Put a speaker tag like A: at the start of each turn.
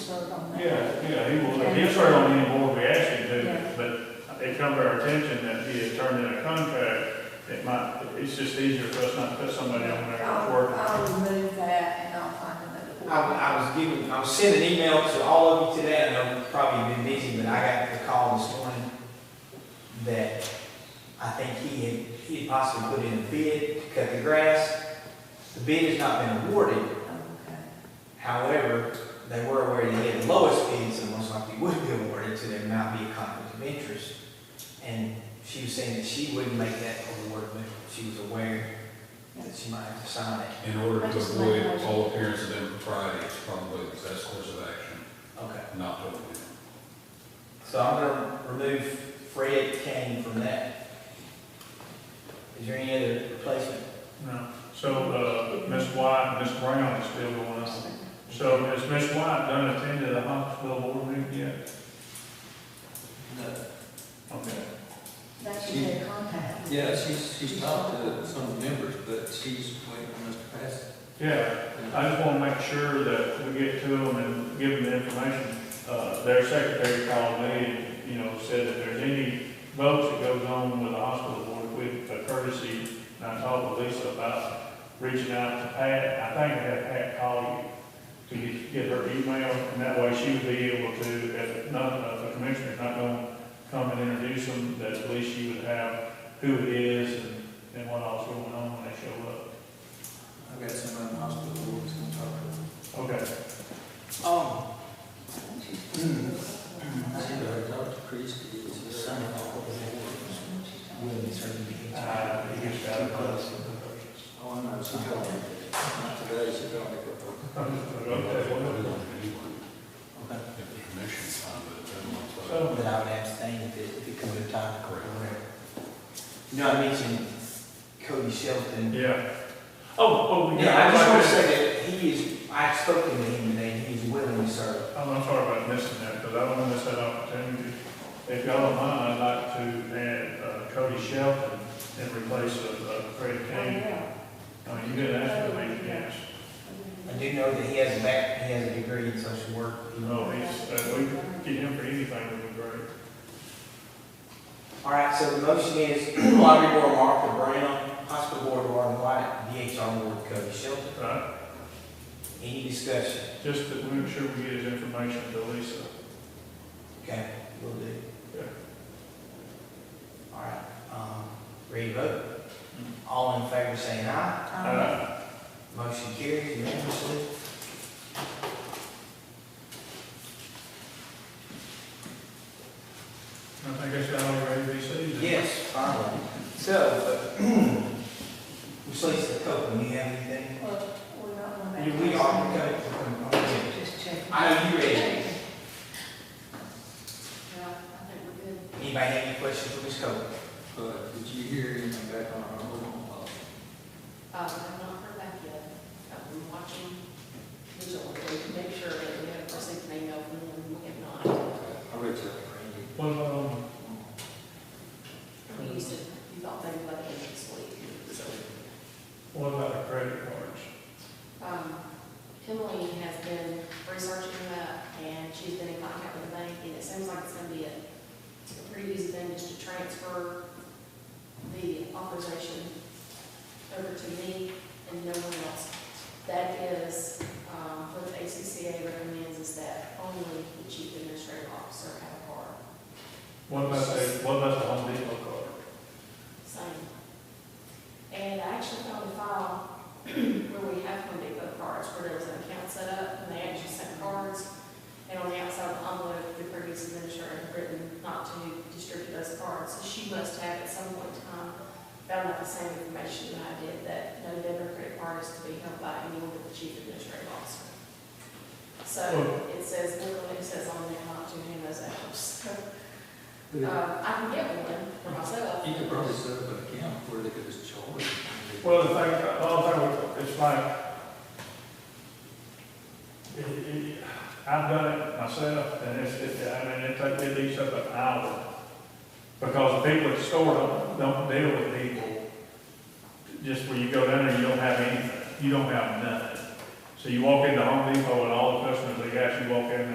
A: serve on that.
B: Yeah, yeah, he will, he'll serve on any board we ask him to, but it come to our attention that he had turned in a contract. It might, it's just easier for us not to put somebody on there that's
A: I'll,
B: working.
A: I'll remove that and I'll find another board.
C: I, I was giving, I was sending an email to all of you today, I know you've probably been busy, but I got the call this morning that I think he had, he had possibly put in a bid to cut the grass. The bid has not been awarded,
A: Okay.
C: however, they were aware that he had the lowest bid, so most likely would be awarded, so there might be a conflict of interest. And she was saying that she wouldn't make that award, but she was aware that she might have to sign it.
D: In order
A: I
D: to
A: just like
D: avoid
A: how-
D: all appearance of impropriety, it's probably the best course of action,
C: Okay.
D: not to avoid it.
C: So I'm gonna remove Fred Kane from that. Is there any other replacement?
B: No, so, uh, Ms. White and Ms. Brown is still going on. So has Ms. White done attended a hospital board meeting yet?
E: Uh,
B: Okay.
A: That should be a contact.
E: Yeah, she's, she's talked to some of the members, but she's waiting on us to pass.
B: Yeah, I just want to make sure that we get to them and give them the information. Uh, Their secretary called me and, you know, said if there's any votes that goes on with the hospital board, with the courtesy, and I talked to Lisa about reaching out to Pat, I think I had Pat call you to get- get her email, and that way she would be able to, if not, if the commissioner's not going to come and introduce them, that at least she would have who it is and, and what all's going on when they show up.
E: I've got somebody in the hospital who was gonna talk to her.
B: Okay.
C: Oh.
E: She already talked to Chris, he was there.
B: Uh, he gets out of class.
E: Oh, I know, she called me. Not today, she called me. but-
C: Okay.
D: If the commission signed it, then it's like-
B: So,
C: But I would abstain if it, if it comes to time.
D: Correct.
C: You know, I mentioned Cody Shelton.
B: yeah. Oh, oh,
C: Yeah, I just wanna
B: yeah.
C: say that he is, I spoke to him today, he is willing to serve.
B: I'm, I'm sorry about missing that, because I don't want to miss that opportunity. If y'all don't mind, I'd like to add uh, Cody Shelton and replace uh, uh, Fred Kane. I mean, you didn't ask for me, yes.
C: I do know that he has a back, he has a degree in social work.
B: No, he's, uh, we could get him for anything, would be great.
C: All right, so the motion is Lottery Board Martha Brown, Hospital Board Warren White, DHR Board Cody Shelton.
B: Right?
C: Any discussion?
B: Just to make sure we get his information to Lisa.
C: Okay, will do.
B: Yeah.
C: All right, um, ready to vote? All in favor saying aye.
A: Uh-huh.
B: Uh,
C: Motion carries unanimously.
B: I think that's got all your ABCs.
C: Yes, finally. So, Ms. Lisa Copeland, you have anything?
A: Well, we're not on that.
C: You- We are, okay.
A: Just check.
C: I know you ready.
A: Yeah, I think we're good.
C: Anybody have any questions for Ms. Copeland?
E: But did you hear anything back on our home policy?
F: Uh, I've not heard back yet. I've been watching vigilantly to make sure that we have received an email from them. We have not.
E: I read that, Randy.
B: What about on
F: You said you thought they would let me next week. So,
B: What about the credit cards?
F: um, Emily has been researching that and she's been in contact with the bank and it seems like it's gonna be a a pretty easy thing just to transfer the authorization over to me and no one else. That is, um, what the ACCA recommends is that only the chief administrative officer have a card.
B: What about the, what about the Home Depot card?
F: Same. And I actually found a file where we have Home Depot cards, where there was an account set up, and they actually sent cards. And on the outside of the envelope, the previous administrator had written not to distribute those cards. So she must have at some point in time found out the same information that I did, that no debit or credit card is to be held by anyone but the chief administrative officer. So it says, literally it says on there not to hand those out. So,
E: You
F: uh, I can get one for myself.
E: could probably set up an account where they could just charge.
B: Well, the thing, the other thing, it's like, it, it, I've done it myself, and it's, it, I mean, it takes, it takes up an hour. Because people at the store don't, don't deal with people, just where you go down there, you don't have anything, you don't have nothing. So you walk into Home Depot and all the customers, they got you walk in there,